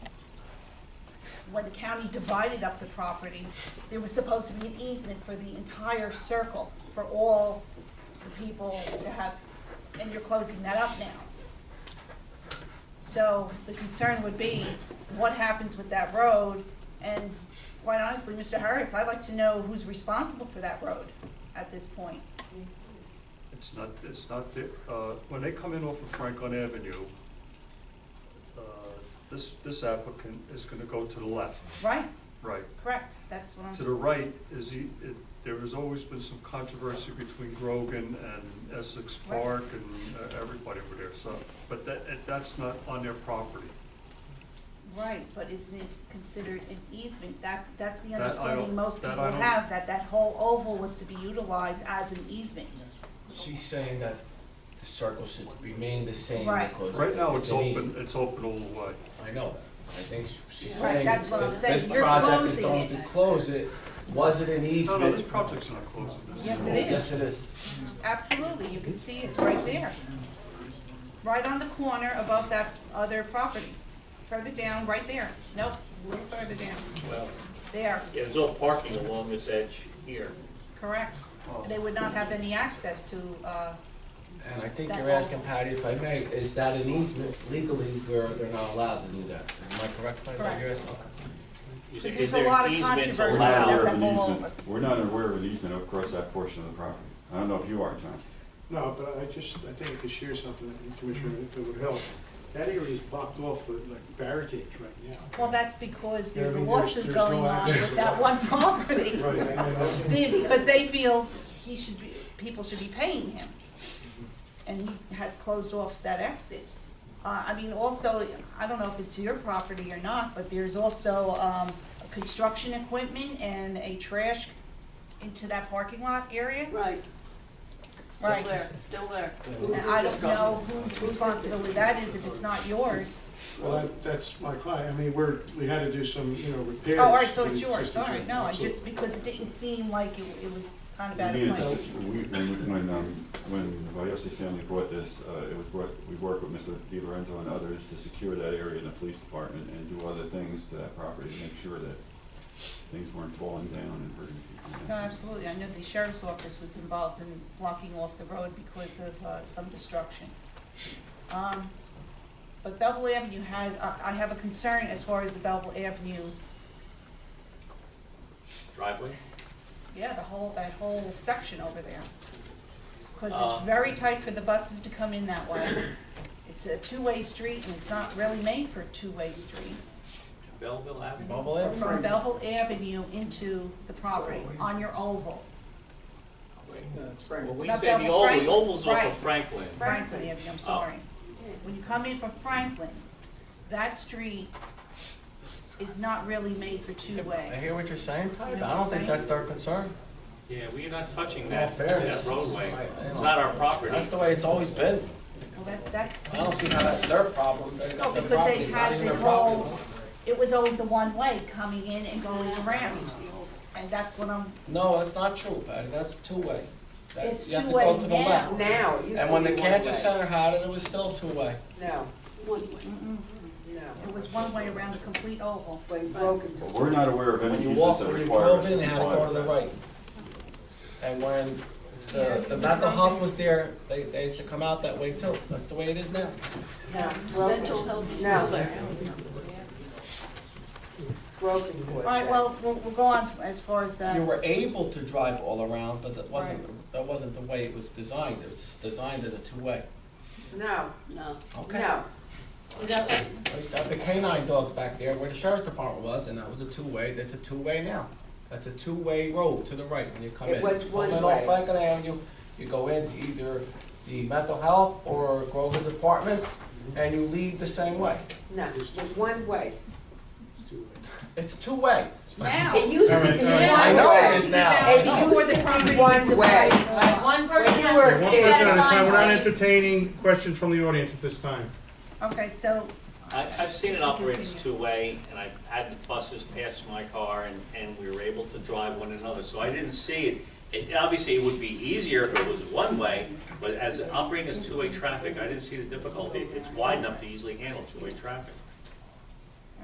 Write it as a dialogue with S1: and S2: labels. S1: when the county divided up the property, there was supposed to be an easement for the entire circle, for all the people to have, and you're closing that up now. So the concern would be, what happens with that road? And quite honestly, Mr. Hurwitz, I'd like to know who's responsible for that road at this point.
S2: It's not, it's not, the- uh, when they come in off of Franklin Avenue, uh, this, this applicant is gonna go to the left,
S1: Right,
S2: right.
S1: correct, that's what I'm.
S2: To the right is, he- it- there has always been some controversy between Grogan and Essex
S1: Right.
S2: Park and uh, everybody over there, so, but that, it- that's not on their property.
S1: Right, but isn't it considered an easement? That, that's the
S2: That I
S1: understanding
S2: don't-
S1: most
S2: that
S1: people
S2: I don't-
S1: have, that that whole oval was to be utilized as an easement.
S3: She's saying that the circle should remain the same
S1: Right.
S3: because.
S2: Right now, it's
S3: an
S2: open,
S3: easement.
S2: it's open all the way.
S3: I know that. I think she's
S1: Right,
S3: saying
S1: that's what I'm
S3: that this
S1: saying. You're
S3: project is
S1: closing
S3: going
S1: it.
S3: to close it. Was it an
S2: No,
S3: easement?
S2: no, this project's not closing. This
S1: Yes, it is.
S3: Yes, it is.
S1: Absolutely, you can see it right there. Right on the corner above that other property. Further down, right there. Nope, a little further down.
S4: Well,
S1: There,
S4: yeah, there's all parking along this edge here.
S1: correct. They would not have any access to, uh,
S3: And I think
S1: That
S3: you're
S1: whole-
S3: asking Patty, if I may, is that an easement legally where they're not allowed to do that? Am I correct, Patty?
S1: Correct.
S3: You're asking-
S4: Is-
S1: Because
S4: is
S1: there's a
S4: there
S1: lot of
S4: easements
S1: controversy
S5: We're
S4: allowed?
S5: not aware
S1: that
S5: of an
S1: whole-
S5: easement, we're not aware of an easement across that portion of the property. I don't know if you are, John.
S6: No, but I just, I think I could share something, with you, Commissioner, if it would help. That area is blocked off with like barricades right now.
S1: well, that's because there's a
S6: Yeah, I mean, there's-
S1: lawsuit
S6: there's
S1: going
S6: no
S1: on
S6: access.
S1: with that one property.
S6: Right, I mean,
S1: They- because they feel he should be, people should be paying him. And he has closed off that exit. Uh, I mean, also, I don't know if it's your property or not, but there's also, um, construction equipment and a trash into that parking lot area.
S7: Right, still
S1: Right.
S7: there, still there.
S1: And I don't know whose responsibility that is if it's not yours.
S6: Well, that- that's my client, I mean, we're, we had to do some, you know, repairs.
S1: Oh, all right, so
S6: to the
S1: it's yours,
S6: existing
S1: all right, no, I
S6: structure.
S1: just, because it didn't seem like it, it was kind of out
S5: We
S1: of
S5: needed
S1: place.
S5: this- we- When, when, um, when the Vayossi family bought this, uh, it was, brought- we worked with Mr. Di Lorenzo and others to secure that area in the police department and do other things to that property to make sure that things weren't falling down and hurting people.
S1: No, absolutely, I know the sheriff's office was involved in blocking off the road because of uh, some destruction. Um, But Belleville Avenue has, I I have a concern as far as the Belleville Avenue,
S4: Driveway?
S1: yeah, the whole, that whole section over there. Because
S4: Uh.
S1: it's very tight for the buses to come in that way. It's a two-way street and it's not really made for a two-way street.
S4: Belleville Avenue?
S3: Bubble it?
S1: From Belleville Avenue into the property on your oval,
S4: Well, we
S1: Not
S4: say the
S1: Belleville,
S4: oval, the
S1: Franklin.
S4: oval's off
S1: Right.
S4: of Franklin.
S1: Franklin Avenue, I'm sorry. When you come in from Franklin, that street is not really made for
S3: I
S1: two-way.
S3: hear what you're saying, Patty, but I don't think that's their concern.
S4: Yeah, we're not touching
S3: Well,
S4: that,
S3: fair
S4: that
S3: is-
S4: roadway.
S3: I- I
S4: It's
S3: know.
S4: not our property.
S3: That's the way it's always been.
S1: Well, that, that's,
S3: I don't see how that's their problem. They
S1: no,
S3: got their
S1: because
S3: property,
S1: they
S3: it's not
S1: had
S3: even
S1: the
S3: their property.
S1: whole, it was always a one-way coming in and going around. And that's what I'm,
S3: No, that's not true, Patty, that's two-way. That-
S1: It's
S3: you have to
S1: two-way
S3: go to the
S1: now.
S3: left.
S8: Now, it used to
S3: And
S8: be
S3: when the
S8: one
S3: cancer
S8: way.
S3: center had it, it was still two-way.
S8: No,
S7: One way.
S1: it
S8: no.
S1: was one way around the complete oval.
S8: When it broke into.
S5: But we're not aware of
S3: When
S5: any
S3: you
S5: easements
S3: walk,
S5: that
S3: when you
S5: require us
S3: drove
S5: to
S3: in, you had to
S5: comply
S3: go
S5: with
S3: to the
S5: that.
S3: right. And when the, the mental health was there, they, they used to come out that way too. That's the way it is now.
S8: No,
S7: Mental
S8: broken,
S7: health is still there.
S8: broken.
S1: All right, well, we'll, we'll go on as far as
S3: You
S1: the,
S3: were able to drive all around, but that wasn't, that wasn't the way it was designed. It was just designed as a two-way.
S8: No,
S7: No.
S3: Okay.
S8: no.
S3: I used to have the canine dogs back there where the sheriff's department was, and that was a two-way, that's a two-way now. That's a two-way road to the right when you come in.
S8: It was
S3: Pull
S8: one
S3: in
S8: way.
S3: off Franklin Avenue, you go into either the mental health or Grover's Apartments, and you leave the same way.
S8: No, it was one way.
S3: It's two-way.
S1: now.
S8: It used to
S3: All right,
S8: be
S3: all right. I
S8: one
S3: know it
S8: way.
S3: is now.
S8: It
S3: I
S1: Before
S8: used
S1: the
S8: to
S1: property was
S8: be one way.
S1: divided.
S9: One
S8: When you were
S9: One person at
S8: kids,
S9: a time, we're not
S7: Please.
S9: entertaining questions from the audience at this time.
S1: Okay, so,
S4: I, I've seen it
S1: Just to
S4: operate as
S1: continue.
S4: two-way, and I've had the buses pass my car, and, and we were able to drive one another, so I didn't see it. It, obviously, it would be easier if it was one-way, but as operating as two-way traffic, I didn't see the difficulty. It's wide enough to easily handle two-way traffic.